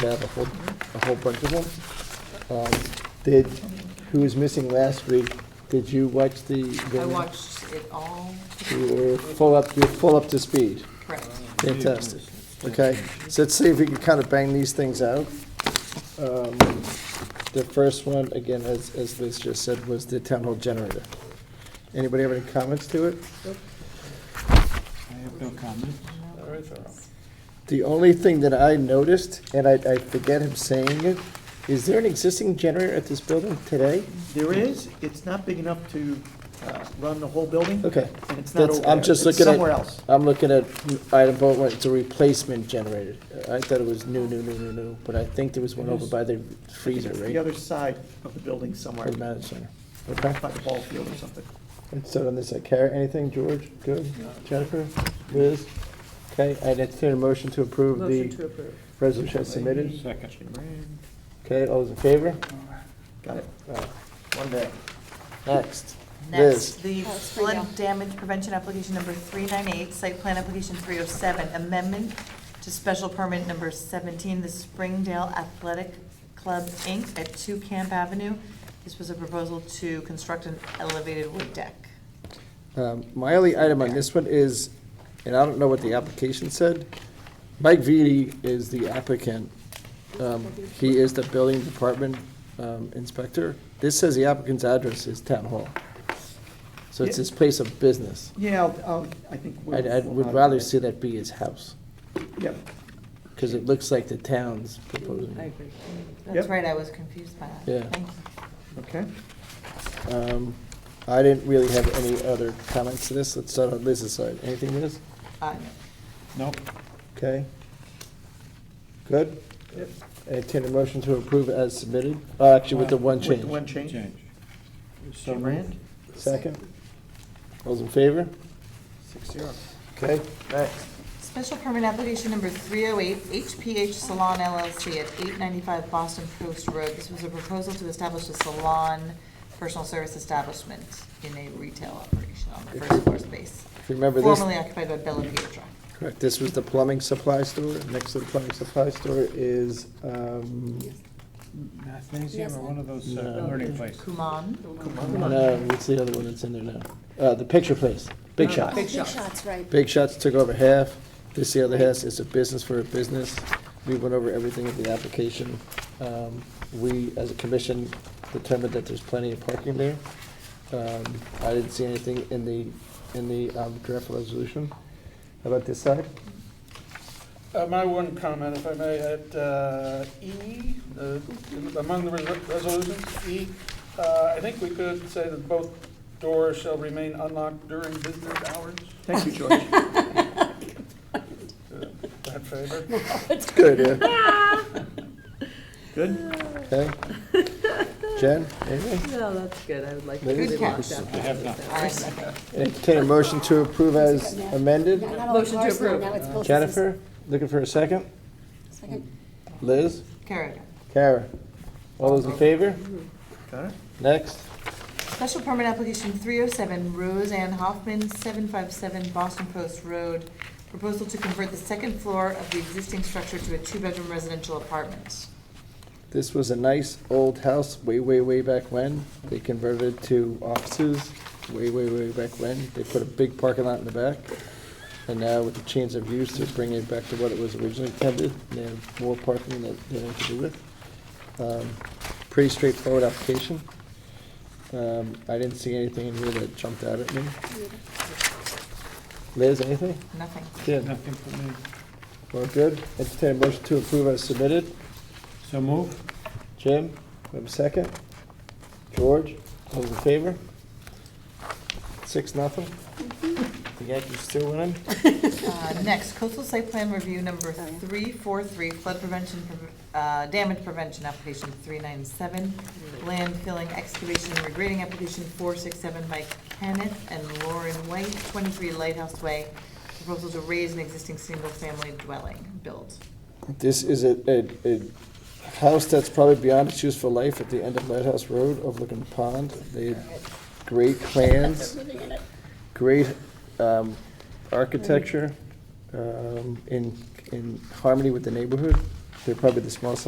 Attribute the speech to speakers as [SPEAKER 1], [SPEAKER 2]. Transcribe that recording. [SPEAKER 1] We have a whole, a whole bunch of them. Um, Did, who was missing last week, did you watch the?
[SPEAKER 2] I
[SPEAKER 1] the-
[SPEAKER 2] watched it all,
[SPEAKER 1] You were full up, you're full up to speed.
[SPEAKER 2] correct.
[SPEAKER 1] Fantastic. Okay, so let's see if we can kind of bang these things out. Um, The first one, again, as, as Liz just said, was the town hall generator. Anybody have any comments to it?
[SPEAKER 3] I have no comment.
[SPEAKER 1] The only thing that I noticed, and I, I forget him saying it, is there an existing generator at this building today?
[SPEAKER 3] There is, it's not big enough to uh, run the whole building.
[SPEAKER 1] Okay.
[SPEAKER 3] And it's not
[SPEAKER 1] That's,
[SPEAKER 3] over there.
[SPEAKER 1] I'm just
[SPEAKER 3] It's
[SPEAKER 1] looking at.
[SPEAKER 3] somewhere else.
[SPEAKER 1] I'm looking at item vote one, it's a replacement generator. I thought it was new, new, new, new, new, but I think there was one over by the freezer,
[SPEAKER 3] It's The
[SPEAKER 1] right?
[SPEAKER 3] other side of the building somewhere,
[SPEAKER 1] Or the managed center. Okay.
[SPEAKER 3] by the ball field or something.
[SPEAKER 1] And so on this, I care, anything, George? Good? Jennifer? Liz? Okay, I entertain a motion to approve
[SPEAKER 2] Motion
[SPEAKER 1] the
[SPEAKER 2] to approve.
[SPEAKER 1] resolution as submitted.
[SPEAKER 3] Second.
[SPEAKER 1] Okay, all those in favor?
[SPEAKER 3] Got it.
[SPEAKER 1] Uh,
[SPEAKER 3] One day.
[SPEAKER 1] Next. Liz.
[SPEAKER 2] Next, the
[SPEAKER 4] Oh, it's free now.
[SPEAKER 2] flood damage prevention application number 398, site plan application 307, amendment to special permit number 17, the Springdale Athletic Club, Inc., at 2 Camp Avenue. This was a proposal to construct an elevated wood deck.
[SPEAKER 1] Um, My only item on this one is, and I don't know what the application said, Mike Vitti is the applicant. Um, He is the building department um, inspector. This says the applicant's address is Town Hall. So it's his place of business.
[SPEAKER 3] Yeah, I'll- I'll, I think. we'll-
[SPEAKER 1] I'd, I'd would
[SPEAKER 3] we'll
[SPEAKER 1] rather
[SPEAKER 3] not-
[SPEAKER 1] see that be his house,
[SPEAKER 3] Yep,
[SPEAKER 1] because it looks like the town's proposing. it.
[SPEAKER 2] That's
[SPEAKER 3] Yep.
[SPEAKER 2] right, I was confused by that.
[SPEAKER 1] Yeah.
[SPEAKER 2] Thank you.
[SPEAKER 3] okay.
[SPEAKER 1] Um, I didn't really have any other comments to this. Let's start on Liz's side. Anything, Liz?
[SPEAKER 2] Uh,
[SPEAKER 3] Nope.
[SPEAKER 1] Okay. Good?
[SPEAKER 3] Yep.
[SPEAKER 1] Entertain a motion to approve as submitted, uh, actually with the one
[SPEAKER 3] With
[SPEAKER 1] change.
[SPEAKER 3] the one change.
[SPEAKER 5] Change.
[SPEAKER 3] So moved.
[SPEAKER 1] Second? All's in favor?
[SPEAKER 3] Six zero.
[SPEAKER 1] Okay.
[SPEAKER 2] Special permit application number 308, HPH Salon LLC at 895 Boston Post Road. This was a proposal to establish a salon personal service establishment in a retail operation on the first floor space,
[SPEAKER 1] If you remember this,
[SPEAKER 2] formerly occupied by Bella Pietra.
[SPEAKER 1] correct, this was the plumbing supply store. Next to the plumbing supply store is, um,
[SPEAKER 5] Mathnasium or one of those uh,
[SPEAKER 1] No.
[SPEAKER 5] learning places.
[SPEAKER 2] Kuman,
[SPEAKER 1] no, what's the other one that's in there now? Uh, the picture place,
[SPEAKER 3] Uh,
[SPEAKER 1] Big Shot.
[SPEAKER 4] Oh, Big shots, right.
[SPEAKER 1] Big Shots took over half, this the other half, it's a business for a business. We went over everything in the application. Um, We, as a commission, determined that there's plenty of parking there. Um, I didn't see anything in the, in the um, draft resolution. How about this side?
[SPEAKER 6] Uh, My one comment, if I may, at uh, E, uh, in- among the res- resolutions, E, uh, I think we could say that both doors shall remain unlocked during business hours.
[SPEAKER 3] Thank you, George.
[SPEAKER 6] Uh, That favor.
[SPEAKER 1] It's good, yeah.
[SPEAKER 3] Good?
[SPEAKER 1] Okay. Jen, anything?
[SPEAKER 7] No, that's good, I would like
[SPEAKER 1] Maybe
[SPEAKER 7] to
[SPEAKER 1] they
[SPEAKER 7] see
[SPEAKER 1] could
[SPEAKER 7] that.
[SPEAKER 1] just-
[SPEAKER 5] I have not.
[SPEAKER 2] I second.
[SPEAKER 1] Entertain a motion to approve as amended.
[SPEAKER 4] Not all the
[SPEAKER 7] Motion to
[SPEAKER 4] cars now,
[SPEAKER 7] approve.
[SPEAKER 4] now it's both of us.
[SPEAKER 1] Jennifer, looking for a second?
[SPEAKER 4] Second.
[SPEAKER 1] Liz?
[SPEAKER 2] Carrigan.
[SPEAKER 1] Kara? All those in favor?
[SPEAKER 3] Got it?
[SPEAKER 1] Next?
[SPEAKER 2] Special permit application 307, Roseanne Hoffman, 757 Boston Post Road. Proposal to convert the second floor of the existing structure to a two-bedroom residential apartment.
[SPEAKER 1] This was a nice old house way, way, way back when. They converted it to offices way, way, way back when. They put a big parking lot in the back. And now with the change of use, they're bringing it back to what it was originally intended. They have more parking that they have to do with. Um, Pretty straightforward application. Um, I didn't see anything in here that jumped out at me. Liz, anything?
[SPEAKER 2] Nothing.
[SPEAKER 1] Jen,
[SPEAKER 5] Nothing for me.
[SPEAKER 1] we're good. Entertain a motion to approve as submitted.
[SPEAKER 5] So move.
[SPEAKER 1] Jim, we have a second. George, all those in favor? Six, nothing. The Yankees still winning?
[SPEAKER 2] Uh, Next, coastal site plan review number 343, flood prevention, prov- uh, damage prevention application 397, land filling excavation and regrading application 467 by Kenneth and Lauren White, 23 Lighthouse Way, proposal to raise an existing single-family dwelling, build.
[SPEAKER 1] This is a, a, a house that's probably beyond its useful life at the end of Lighthouse Road overlooking the pond. They had great plans, great, um, architecture, um, in, in harmony with the neighborhood. They're probably the smallest